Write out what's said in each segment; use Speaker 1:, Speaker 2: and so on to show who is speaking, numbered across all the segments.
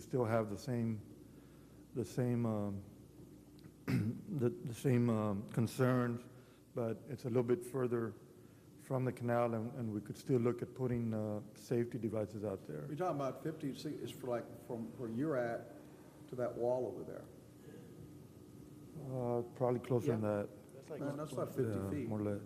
Speaker 1: still have the same, the same, um, the the same um, concerns, but it's a little bit further from the canal, and and we could still look at putting uh, safety devices out there.
Speaker 2: You're talking about 50, see, it's for like, from where you're at to that wall over there.
Speaker 1: Uh, Probably closer than that.
Speaker 2: Man, That's about 50
Speaker 1: Yeah,
Speaker 2: feet.
Speaker 1: More or less.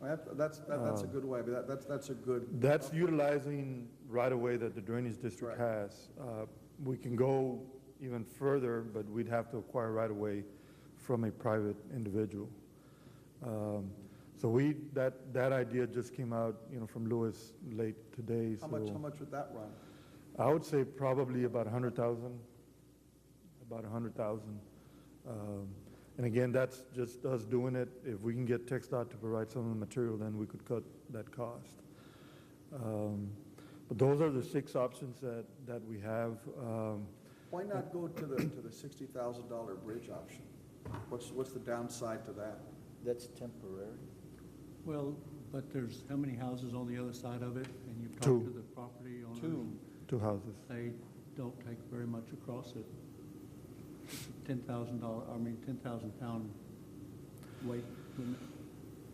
Speaker 2: Well, that- That's, that- that's a good way, but that- that's, that's a good,
Speaker 1: That's utilizing right-of-way that the drainage district
Speaker 2: Right.
Speaker 1: has. Uh, We can go even further, but we'd have to acquire right-of-way from a private individual. Um, So we, that, that idea just came out, you know, from Lewis late today,
Speaker 2: how much, how
Speaker 1: so.
Speaker 2: much would that run?
Speaker 1: I would say probably about a hundred thousand, about a hundred thousand. Um, And again, that's just us doing it. If we can get Tech Dot to provide some of the material, then we could cut that cost. Um, But those are the six options that, that we have. Um,
Speaker 2: Why not go to the, to the $60,000 bridge option? What's, what's the downside to that?
Speaker 3: That's temporary.
Speaker 4: Well, but there's how many houses on the other side of it? And you've
Speaker 1: Two.
Speaker 4: talked to the property owners. and
Speaker 1: Two houses.
Speaker 4: They don't take very much across it. Ten thousand dollar, I mean, ten thousand pound weight limit,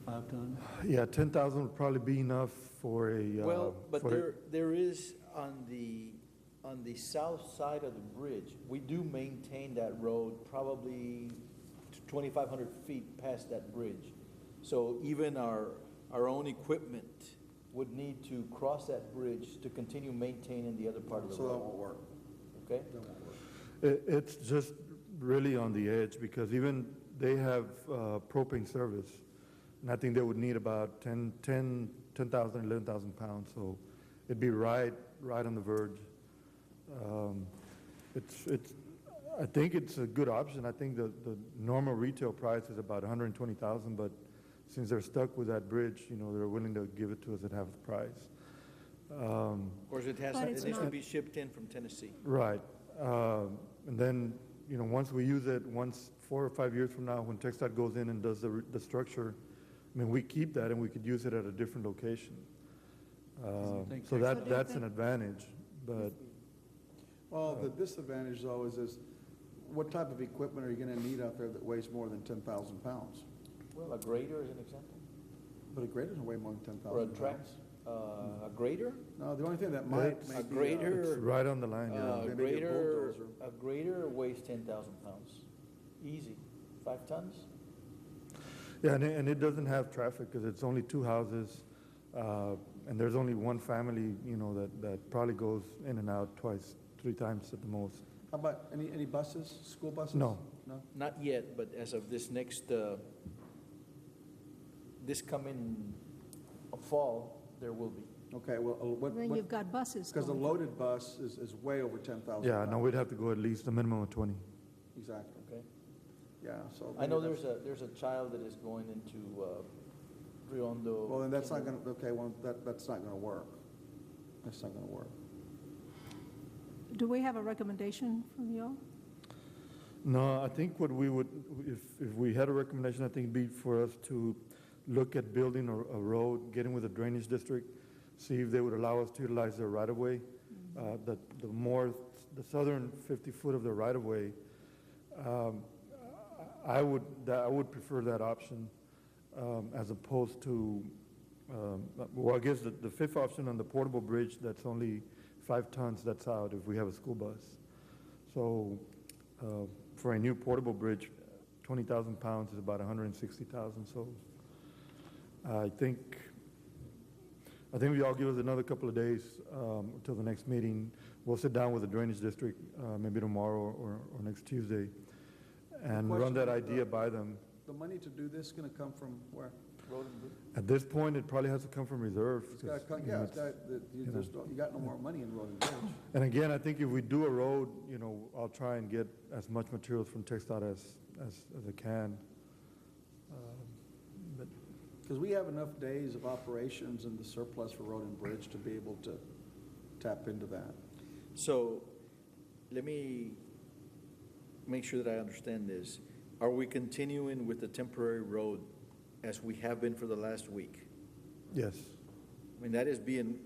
Speaker 4: five ton.
Speaker 1: Yeah, ten thousand would probably be enough for a. uh,
Speaker 3: Well, but
Speaker 1: for a-
Speaker 3: there, there is on the, on the south side of the bridge, we do maintain that road probably twenty-five hundred feet past that bridge. So even our, our own equipment would need to cross that bridge to continue maintaining the other part of the
Speaker 2: So that
Speaker 3: road,
Speaker 2: won't work.
Speaker 3: okay?
Speaker 2: That won't work.
Speaker 1: It, it's just really on the edge because even they have uh, propane service. And I think they would need about 10, 10, 10,000, 11,000 pounds. So it'd be right, right on the verge. Um, it's, it's, I think it's a good option. I think the, the normal retail price is about 120,000, but since they're stuck with that bridge, you know, they're willing to give it to us at half the price. Um,
Speaker 3: Of course, it has,
Speaker 5: But
Speaker 3: it
Speaker 5: it's
Speaker 3: needs to
Speaker 5: not-
Speaker 3: be shipped in from Tennessee.
Speaker 1: Right. Um, And then, you know, once we use it, once, four or five years from now, when TechStop goes in and does the, re- the structure, I mean, we keep that and we could use it at a different location. Um,
Speaker 4: think
Speaker 1: So
Speaker 4: Tech-
Speaker 5: So
Speaker 1: that,
Speaker 5: do
Speaker 1: that's
Speaker 5: they-
Speaker 1: an advantage, but,
Speaker 2: Well, the disadvantage though is, is what type of equipment are you gonna need out there that weighs more than ten thousand pounds?
Speaker 3: Well, a grader is an example,
Speaker 2: But a grader doesn't weigh more than ten
Speaker 3: or a
Speaker 2: thousand
Speaker 3: track,
Speaker 2: pounds.
Speaker 3: uh, a grader?
Speaker 2: No, the only thing that might, may
Speaker 3: A
Speaker 2: be, uh,
Speaker 3: grader?
Speaker 1: it's right on the line,
Speaker 3: Uh,
Speaker 1: yeah.
Speaker 2: They may get
Speaker 3: greater,
Speaker 2: bulldozer.
Speaker 3: a greater weighs ten thousand pounds, easy, five tons?
Speaker 1: Yeah, and it, and it doesn't have traffic because it's only two houses, uh, and there's only one family, you know, that, that probably goes in and out twice, three times at the most.
Speaker 2: How about, any, any buses, school buses?
Speaker 1: No.
Speaker 2: No?
Speaker 3: Not yet, but as of this next, uh, this coming fall, there will be.
Speaker 2: Okay, well, uh, what,
Speaker 5: Then you've
Speaker 2: what,
Speaker 5: got buses
Speaker 2: because a
Speaker 5: going.
Speaker 2: loaded bus is, is way over ten thousand.
Speaker 1: Yeah, no, we'd have to go at least a minimum of 20.
Speaker 2: Exactly,
Speaker 3: Okay.
Speaker 2: yeah, so.
Speaker 3: I know
Speaker 2: maybe
Speaker 3: there's
Speaker 2: that's-
Speaker 3: a, there's a child that is going into uh, Riondo.
Speaker 2: Well, then that's not gonna, okay, well, that, that's not gonna work. That's not gonna work.
Speaker 5: Do we have a recommendation from y'all?
Speaker 1: No, I think what we would, if, if we had a recommendation, I think it'd be for us to look at building a, a road, getting with the drainage district, see if they would allow us to utilize their right-of-way. Uh, the, the more, the southern fifty foot of the right-of-way, um, I would, that, I would prefer that option, um, as opposed to, um, well, I guess the, the fifth option on the portable bridge, that's only five tons, that's out if we have a school bus. So, uh, for a new portable bridge, twenty thousand pounds is about hundred and sixty thousand, so I think, I think if y'all give us another couple of days, um, till the next meeting, we'll sit down with the drainage district, uh, maybe tomorrow or, or next Tuesday, and run that
Speaker 2: Question, uh,
Speaker 1: idea by them.
Speaker 2: The money to do this is gonna come from where?
Speaker 3: Road and bridge.
Speaker 1: At this point, it probably has to come from reserve.
Speaker 2: It's gotta
Speaker 1: 'cause,
Speaker 2: come,
Speaker 1: you know,
Speaker 2: yeah, it's
Speaker 1: it's-
Speaker 2: got, you
Speaker 1: you know.
Speaker 2: just, don't- you got no more money in road and bridge.
Speaker 1: And again, I think if we do a road, you know, I'll try and get as much materials from TechStop as, as, as I can. Um, But
Speaker 2: Because we have enough days of operations in the surplus for road and bridge to be able to tap into that.
Speaker 3: So let me make sure that I understand this. Are we continuing with the temporary road as we have been for the last week?
Speaker 1: Yes,
Speaker 3: I mean, that is being,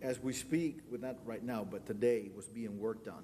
Speaker 3: as we speak, well, not right now, but today, was being worked on.